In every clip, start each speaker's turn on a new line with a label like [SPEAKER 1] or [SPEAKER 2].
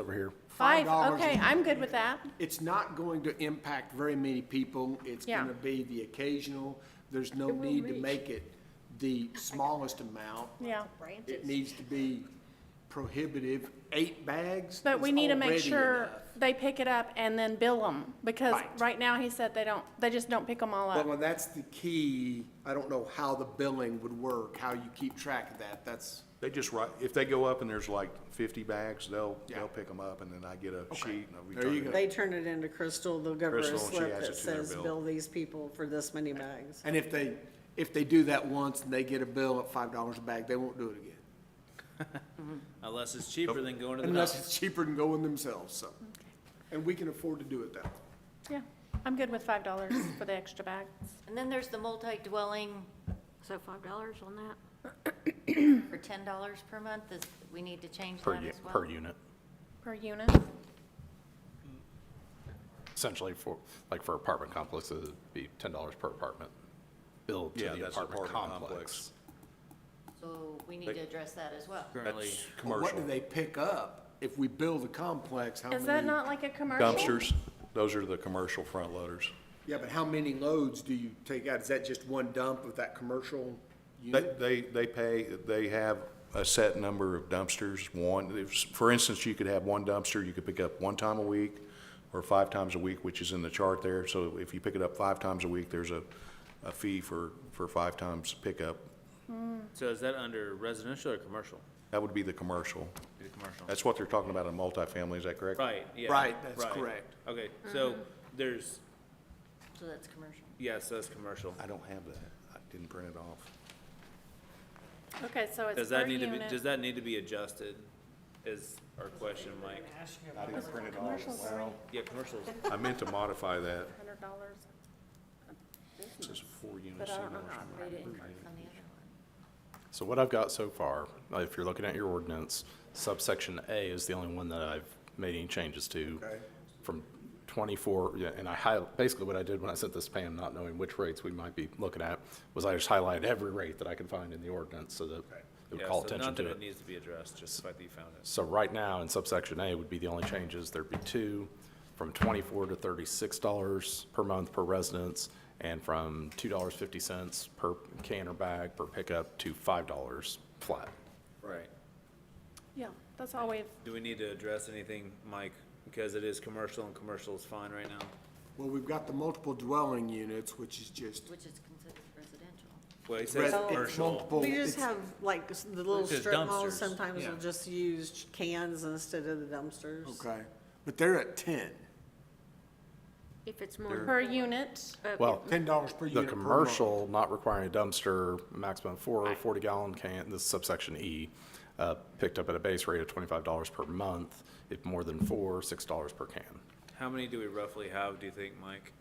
[SPEAKER 1] over here.
[SPEAKER 2] Five,
[SPEAKER 1] dollars
[SPEAKER 2] okay, I'm good with that.
[SPEAKER 1] It's not going to impact very many people. It's
[SPEAKER 2] Yeah.
[SPEAKER 1] gonna be the occasional. There's no need to make it the smallest amount.
[SPEAKER 2] Yeah.
[SPEAKER 1] It needs to be prohibitive. Eight bags
[SPEAKER 2] But we
[SPEAKER 1] is
[SPEAKER 2] need to make
[SPEAKER 1] already
[SPEAKER 2] sure
[SPEAKER 1] enough.
[SPEAKER 2] they pick it up and then bill them, because
[SPEAKER 1] Right.
[SPEAKER 2] right now he said they don't, they just don't pick them all
[SPEAKER 1] Well,
[SPEAKER 2] up.
[SPEAKER 1] and that's the key. I don't know how the billing would work, how you keep track of that. That's,
[SPEAKER 3] They just write, if they go up and there's like fifty bags, they'll,
[SPEAKER 1] Yeah.
[SPEAKER 3] they'll pick them up and then I get a sheet and I'll
[SPEAKER 1] There you
[SPEAKER 3] return
[SPEAKER 1] go.
[SPEAKER 3] it.
[SPEAKER 4] They turn it into Crystal, they'll give her a
[SPEAKER 3] Crystal, and she
[SPEAKER 4] slip
[SPEAKER 3] adds
[SPEAKER 4] that
[SPEAKER 3] it to their
[SPEAKER 4] says,
[SPEAKER 3] bill.
[SPEAKER 4] bill these people for this many bags.
[SPEAKER 1] and if they, if they do that once and they get a bill at five dollars a bag, they won't do it again.
[SPEAKER 5] Unless it's cheaper than going to the
[SPEAKER 1] Unless
[SPEAKER 5] doctor.
[SPEAKER 1] it's cheaper than going themselves, so. And we can afford to do it that way.
[SPEAKER 2] Yeah, I'm good with five dollars for the extra bags.
[SPEAKER 6] And then there's the multi-dwelling, so five dollars on that? For ten dollars per month, is, we need to change
[SPEAKER 7] Per,
[SPEAKER 6] that
[SPEAKER 7] u-
[SPEAKER 6] as well?
[SPEAKER 7] per unit,
[SPEAKER 2] Per unit?
[SPEAKER 7] essentially for, like for apartment complexes, it'd be ten dollars per apartment billed to
[SPEAKER 3] Yeah,
[SPEAKER 7] the
[SPEAKER 3] that's
[SPEAKER 7] apartment
[SPEAKER 3] apartment
[SPEAKER 7] complex.
[SPEAKER 6] So we need to address that as well.
[SPEAKER 5] Currently,
[SPEAKER 3] That's
[SPEAKER 1] But What do
[SPEAKER 3] commercial.
[SPEAKER 1] they pick up if we build a complex? How
[SPEAKER 2] Is that
[SPEAKER 1] many-
[SPEAKER 2] not like a commercial?
[SPEAKER 3] Dumpsters, those are the commercial front loaders.
[SPEAKER 1] Yeah, but how many loads do you take out? Is that just one dump of that commercial
[SPEAKER 3] They,
[SPEAKER 1] unit?
[SPEAKER 3] they, they pay, they have a set number of dumpsters, one, if- for instance, you could have one dumpster, you could pick up one time a week or five times a week, which is in the chart there, so if you pick it up five times a week, there's a, a fee for, for five times pickup.
[SPEAKER 5] so is that under residential or commercial?
[SPEAKER 3] That would be the commercial.
[SPEAKER 5] Be the commercial.
[SPEAKER 3] That's what they're talking about in multifamily, is that correct?
[SPEAKER 5] Right, yeah.
[SPEAKER 1] Right, that's
[SPEAKER 5] right.
[SPEAKER 1] correct.
[SPEAKER 5] Okay, so there's,
[SPEAKER 6] So that's commercial.
[SPEAKER 5] yes, that's commercial.
[SPEAKER 3] I don't have that. I didn't print it off.
[SPEAKER 2] Okay, so
[SPEAKER 5] Does
[SPEAKER 2] it's per
[SPEAKER 5] that need to be, does
[SPEAKER 2] unit.
[SPEAKER 5] that need to be adjusted is our question, Mike?
[SPEAKER 3] I didn't print it off. Well,
[SPEAKER 5] Yeah, commercials,
[SPEAKER 3] I meant to modify that.
[SPEAKER 2] Hundred dollars.
[SPEAKER 3] It says four
[SPEAKER 2] But
[SPEAKER 3] units.
[SPEAKER 2] I don't know.
[SPEAKER 6] Rate it increase on the other one.
[SPEAKER 7] So what I've got so far, uh, if you're looking at your ordinance, subsection A is the only one that I've made any changes to. From twenty-four, yeah, and I highlight, basically what I did when I sent this to Pam, not knowing which rates we might be looking at, was I just highlighted every rate that I could find in the ordinance so that it would
[SPEAKER 5] yeah,
[SPEAKER 7] call
[SPEAKER 5] so not
[SPEAKER 7] attention
[SPEAKER 5] that
[SPEAKER 7] to
[SPEAKER 5] it
[SPEAKER 7] it.
[SPEAKER 5] needs to be addressed, just the fact that you found it.
[SPEAKER 7] So right now, in subsection A would be the only changes, there'd be two, from twenty-four to thirty-six dollars per month per residence, and from two dollars fifty cents per can or bag per pickup to five dollars flat.
[SPEAKER 5] Right.
[SPEAKER 2] Yeah, that's all we've,
[SPEAKER 5] Do we need to address anything, Mike? Because it is commercial and commercial is fine right now.
[SPEAKER 1] Well, we've got the multiple dwelling units, which is just,
[SPEAKER 6] Which is considered residential.
[SPEAKER 5] Well, he says
[SPEAKER 1] it's
[SPEAKER 5] commercial.
[SPEAKER 1] multiple,
[SPEAKER 4] We just
[SPEAKER 1] it's
[SPEAKER 4] have, like, s- the little
[SPEAKER 5] It's just
[SPEAKER 4] strip malls
[SPEAKER 5] dumpsters,
[SPEAKER 4] sometimes will
[SPEAKER 5] yeah.
[SPEAKER 4] just use ch- cans instead of the dumpsters.
[SPEAKER 1] Okay, but they're at ten.
[SPEAKER 8] If it's more.
[SPEAKER 2] per unit,
[SPEAKER 7] Well,
[SPEAKER 1] Ten dollars Uh, per
[SPEAKER 7] the
[SPEAKER 1] unit per month.
[SPEAKER 7] commercial not requiring a dumpster, maximum four forty gallon can, this is subsection E, uh, picked up at a base rate of twenty-five dollars per month, if more than four, six dollars per can.
[SPEAKER 5] How many do we roughly have, do you think, Mike?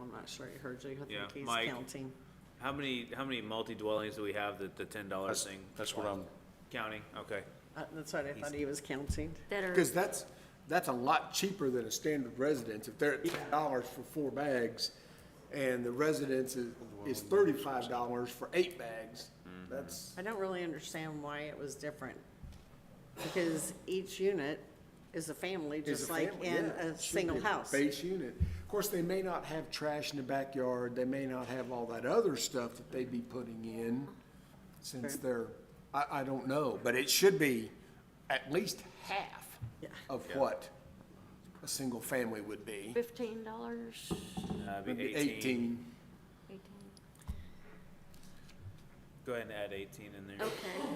[SPEAKER 4] I'm not sure he heard you, I
[SPEAKER 5] Yeah,
[SPEAKER 4] think he's
[SPEAKER 5] Mike.
[SPEAKER 4] counting.
[SPEAKER 5] How many, how many multi-dwellings do we have that the ten dollar
[SPEAKER 3] That's,
[SPEAKER 5] thing?
[SPEAKER 3] that's what I'm,
[SPEAKER 5] Counting, okay.
[SPEAKER 4] Uh, That's what I thought he was counting.
[SPEAKER 8] That are,
[SPEAKER 1] Because that's, that's a lot cheaper than a standard residence. If they're at ten dollars for four bags, and the residence is, is thirty-five dollars for eight bags,
[SPEAKER 7] Mm-hmm.
[SPEAKER 1] that's,
[SPEAKER 4] I don't really understand why it was different. Because each unit is a family,
[SPEAKER 1] is
[SPEAKER 4] just
[SPEAKER 1] a
[SPEAKER 4] like
[SPEAKER 1] family,
[SPEAKER 4] in
[SPEAKER 1] yeah,
[SPEAKER 4] a
[SPEAKER 1] it should
[SPEAKER 4] single
[SPEAKER 1] be a
[SPEAKER 4] house.
[SPEAKER 1] Base unit. Of course, they may not have trash in the backyard, they may not have all that other stuff that they'd be putting in, since they're, I, I don't know, but it should be at least half
[SPEAKER 4] Yeah.
[SPEAKER 1] of what a single family would be.
[SPEAKER 8] fifteen dollars,
[SPEAKER 5] That'd
[SPEAKER 1] Would
[SPEAKER 5] Uh, be
[SPEAKER 1] be
[SPEAKER 5] eighteen.
[SPEAKER 1] eighteen.
[SPEAKER 5] Go ahead and add eighteen in there.
[SPEAKER 8] okay.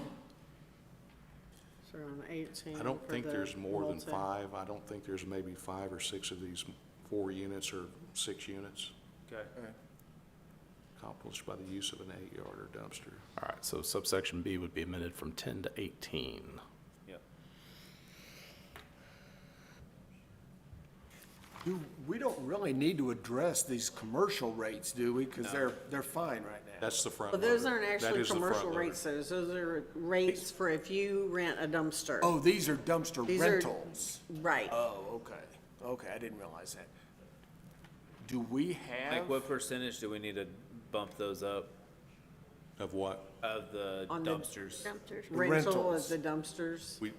[SPEAKER 4] So around eighteen
[SPEAKER 3] I don't
[SPEAKER 4] for
[SPEAKER 3] think
[SPEAKER 4] the
[SPEAKER 3] there's more than
[SPEAKER 4] multi.
[SPEAKER 3] five. I don't think there's maybe five or six of these four units or six units
[SPEAKER 5] Okay.
[SPEAKER 3] accomplished by the use of an eight-yarder dumpster.
[SPEAKER 7] All right, so subsection B would be amended from ten to eighteen.
[SPEAKER 5] Yep.
[SPEAKER 1] Do, we don't really need to address these commercial rates, do we? Because they're, they're fine right now.
[SPEAKER 3] That's the front
[SPEAKER 4] But
[SPEAKER 3] loader.
[SPEAKER 4] those aren't
[SPEAKER 3] That
[SPEAKER 4] actually
[SPEAKER 3] is the front
[SPEAKER 4] commercial
[SPEAKER 3] loader.
[SPEAKER 4] rates, those, those are rates for if you rent a dumpster.
[SPEAKER 1] Oh, these are dumpster
[SPEAKER 4] These are-
[SPEAKER 1] rentals.
[SPEAKER 4] Right.
[SPEAKER 1] Oh, okay. Okay, I didn't realize that. Do we have,
[SPEAKER 5] Like, what percentage do we need to bump those up?
[SPEAKER 3] Of what?
[SPEAKER 9] of the
[SPEAKER 4] On the
[SPEAKER 9] dumpsters.
[SPEAKER 7] dumpsters.
[SPEAKER 4] rental of
[SPEAKER 5] rentals.
[SPEAKER 4] the dumpsters.
[SPEAKER 3] We,